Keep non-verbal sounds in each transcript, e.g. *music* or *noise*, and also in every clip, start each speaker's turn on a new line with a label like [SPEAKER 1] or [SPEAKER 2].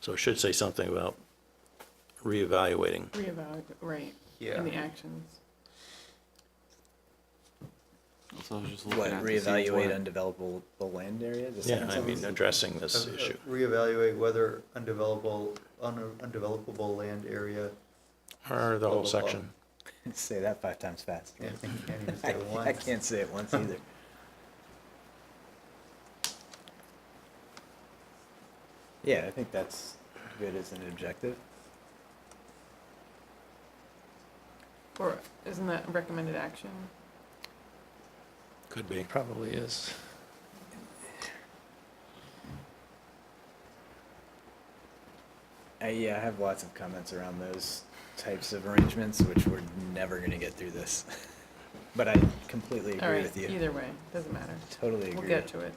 [SPEAKER 1] So it should say something about reevaluating.
[SPEAKER 2] Reevaluate, right,
[SPEAKER 3] Yeah.
[SPEAKER 2] in the actions.
[SPEAKER 4] So I was just looking
[SPEAKER 5] What,
[SPEAKER 4] at to see which
[SPEAKER 5] reevaluate
[SPEAKER 4] one-
[SPEAKER 5] undevelopable land area? The
[SPEAKER 1] Yeah,
[SPEAKER 5] second
[SPEAKER 1] I mean,
[SPEAKER 5] sentence?
[SPEAKER 1] addressing this
[SPEAKER 3] Uh, uh,
[SPEAKER 1] issue.
[SPEAKER 3] Reevaluate whether undevelopable, un- undevelopable land area,
[SPEAKER 1] Or the whole
[SPEAKER 3] Blah, blah, blah.
[SPEAKER 1] section.
[SPEAKER 5] *laughs* Say that five times fast.
[SPEAKER 3] yeah,
[SPEAKER 5] *laughs*
[SPEAKER 3] I can't even
[SPEAKER 5] I
[SPEAKER 3] say one.
[SPEAKER 5] I can't say it once either. Yeah, I think that's good as an objective.
[SPEAKER 2] Or isn't that recommended action?
[SPEAKER 1] Could be.
[SPEAKER 6] Probably is.
[SPEAKER 5] I, yeah, I have lots of comments around those types of arrangements, which we're never gonna get through this. *laughs* But I completely
[SPEAKER 2] All
[SPEAKER 5] agree
[SPEAKER 2] right,
[SPEAKER 5] with you.
[SPEAKER 2] either way, doesn't matter.
[SPEAKER 5] Totally
[SPEAKER 2] We'll
[SPEAKER 5] agree.
[SPEAKER 2] get to it.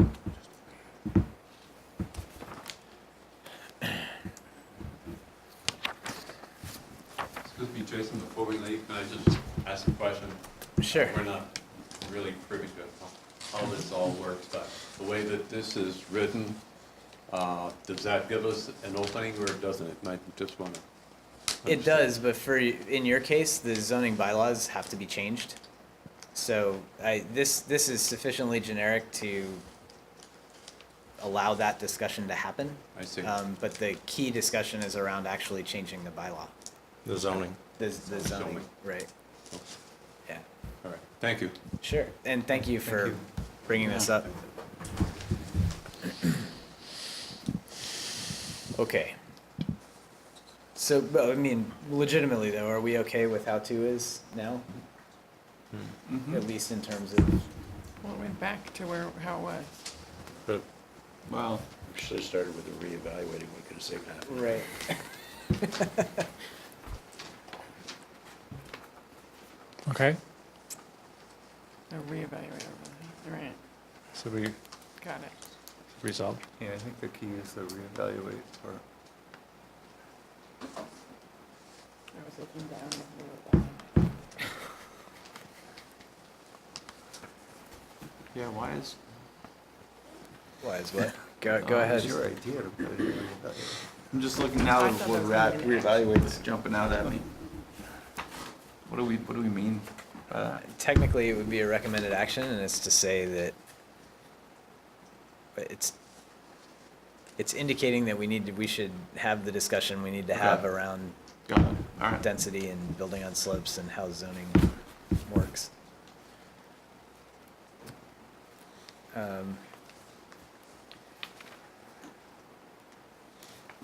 [SPEAKER 7] Excuse me, Jason, before we leave, can I just ask a question?
[SPEAKER 5] Sure.
[SPEAKER 7] We're not really privy to how this all works, but the way that this is written, uh, does that give us an opening or doesn't it? And I just want to.
[SPEAKER 5] It does, but for, y- in your case, the zoning bylaws have to be changed. So I, this, this is sufficiently generic to allow that discussion to happen.
[SPEAKER 7] I see.
[SPEAKER 5] Um, but the key discussion is around actually changing the bylaw,
[SPEAKER 1] The zoning.
[SPEAKER 5] the, the zoning,
[SPEAKER 7] Zoning.
[SPEAKER 5] right? Yeah,
[SPEAKER 7] All right, thank you.
[SPEAKER 5] sure. And thank you for
[SPEAKER 3] you.
[SPEAKER 5] bringing this up. Okay. So, but, I mean, legitimately though, are we okay with how two is now? At least in terms of,
[SPEAKER 2] Well, it went back to where, how it was.
[SPEAKER 1] But
[SPEAKER 4] Well,
[SPEAKER 6] We should have started with the reevaluating, we could have saved half.
[SPEAKER 5] right.
[SPEAKER 6] Okay,
[SPEAKER 2] A reevaluate, really. all right,
[SPEAKER 6] so we
[SPEAKER 2] got it.
[SPEAKER 6] resolved.
[SPEAKER 3] Yeah, I think the key is the reevaluate or.
[SPEAKER 2] I was looking down. and I wrote that one.
[SPEAKER 4] yeah, why is,
[SPEAKER 5] Why is what? *laughs* Go,
[SPEAKER 4] go
[SPEAKER 5] go
[SPEAKER 4] Oh,
[SPEAKER 5] ahead.
[SPEAKER 4] ahead.
[SPEAKER 3] uh, Your idea to put it in reevaluate.
[SPEAKER 4] I'm just looking now
[SPEAKER 2] I
[SPEAKER 4] at
[SPEAKER 2] thought
[SPEAKER 4] what
[SPEAKER 2] that
[SPEAKER 4] rat
[SPEAKER 2] was
[SPEAKER 4] reevaluates jumping out at me. What do we, what do we mean by that?
[SPEAKER 5] Technically, it would be a recommended action and it's to say that but it's, it's indicating that we need to, we should have the discussion we need to have
[SPEAKER 4] Okay.
[SPEAKER 5] around
[SPEAKER 4] Got it, all right.
[SPEAKER 5] density and building on slopes and how zoning works. Um,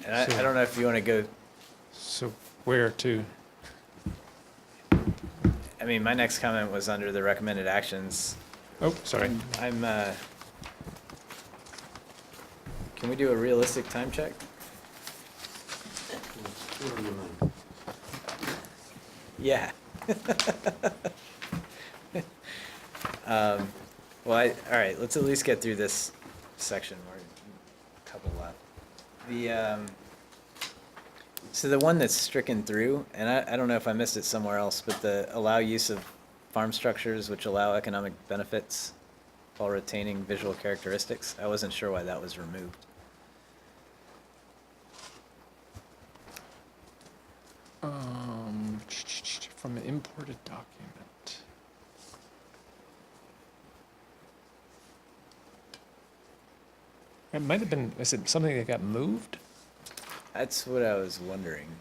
[SPEAKER 5] And I, I
[SPEAKER 6] So-
[SPEAKER 5] don't know if you want to go,
[SPEAKER 6] So where to?
[SPEAKER 5] I mean, my next comment was under the recommended actions.
[SPEAKER 6] Oh, sorry.
[SPEAKER 5] I'm- I'm, uh, can we do a realistic time check? Yeah. *laughs* Um, well, I, all right, let's at least get through this section, we're a couple left. The, um, so the one that's stricken through, and I, I don't know if I missed it somewhere else, but the allow use of farm structures which allow economic benefits while retaining visual characteristics, I wasn't sure why that was removed.
[SPEAKER 6] Um, from an imported document. It might have been, is it something that got moved?
[SPEAKER 5] That's what I was wondering.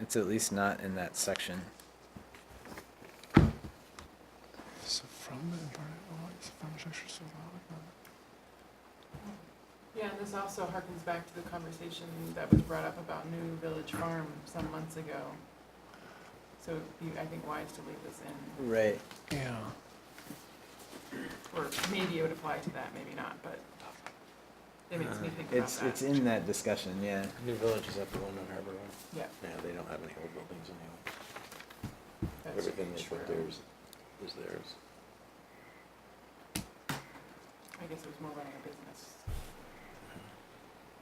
[SPEAKER 5] It's at least not in that section.
[SPEAKER 6] So from the imported, oh, it's from structure, so allow it.
[SPEAKER 2] Yeah, and this also harkens back to the conversation that was brought up about New Village Farm some months ago. So you, I think wise to leave this in,
[SPEAKER 5] Right.
[SPEAKER 6] Yeah.
[SPEAKER 2] or maybe it would apply to that, maybe not, but it makes me think about that.
[SPEAKER 5] Uh, It's, it's in that discussion, yeah.
[SPEAKER 1] New Village is up the one on Harbor Road.
[SPEAKER 2] Yeah.
[SPEAKER 1] Yeah, they don't have any old buildings anyway.
[SPEAKER 2] that's true.
[SPEAKER 1] is theirs.
[SPEAKER 2] I guess it was more running a business.